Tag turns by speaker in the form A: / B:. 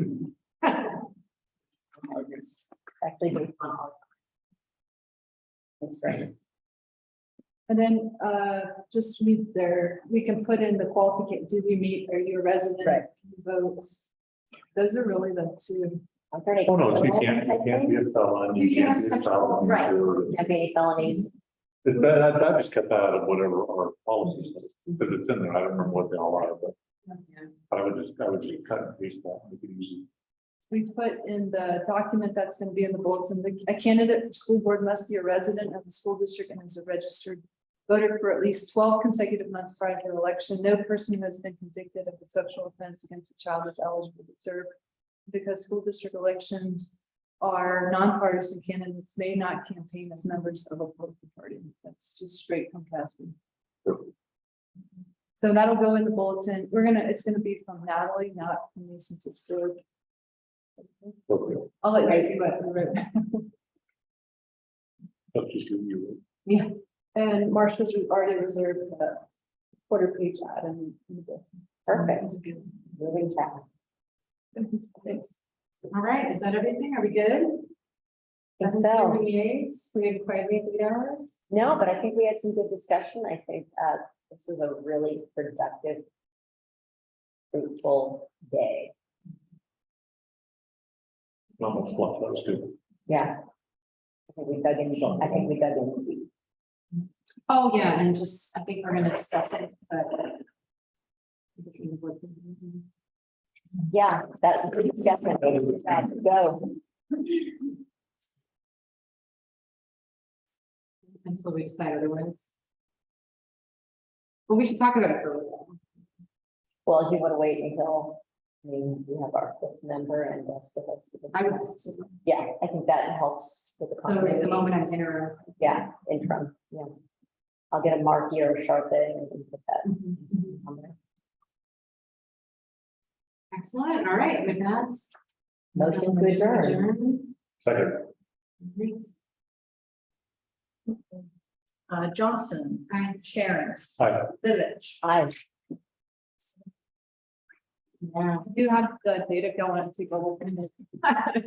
A: think Oh, it's on all. That's right.
B: And then, uh, just meet their, we can put in the qualification, did you meet, are you a resident?
A: Right.
B: Votes. Those are really the two.
A: Alternative.
C: Oh, no, you can't, you can't be a felon,
B: You
C: you
B: can't
C: can't
B: have
C: be a
B: sexual
C: felon.
B: assault. Right.
C: or-
A: Have any felonies?
C: That, that, that just kept out of whatever our policies, because it's in there, I don't remember what they all are, but I would just, I would just cut and paste that, we could use
B: We put in the document that's gonna be in the bulletin, the- a candidate for school board must be a resident of the school district and is a registered voter for at least twelve consecutive months prior to the election. No person who has been convicted of a sexual offense against a child is eligible to serve. Because school district elections are nonpartisan candidates may not campaign as members of a political party. That's just straight from Cassie. So that'll go in the bulletin. We're gonna, it's gonna be from Natalie, not from me since it's through.
C: appropriate,
B: I'll let you see what we wrote.
C: that's just you.
B: And Marcia's already reserved the quarter page ad and.
A: Perfect. Moving fast.
B: Thanks.
D: All right, is that everything? Are we good?
A: Think so.
D: 7:38. we have quite a few hours.
A: No, but I think we had some good discussion. I think uh this was a really productive. Fruitful day.
C: Not much fluff, that was good.
A: Yeah. I think we dug in, I think we dug in. deep.
D: Oh, yeah, and just, I think we're gonna discuss it, but. It's in the board meeting.
A: Yeah, that's a good discussion.
C: That was the-
A: Time to Go.
D: Until we decide otherwise. But we should talk about it for a little.
A: Well, do you want to wait until, I mean, we have our fifth member and that's the rest of us.
D: I would.
A: Yeah, I think that helps with the
D: So at the
A: continuity.
D: moment I'm interim.
A: Yeah, interim, yeah. I'll get a mark here or sharp A and put that on there.
D: Excellent, all right, with that.
A: Motion to adjourn.
C: Second,
B: Uh, Johnson,
D: Aye.
B: Sharon,
C: hi,
B: Village.
A: Aye.
D: Yeah.
B: You have the data going to go.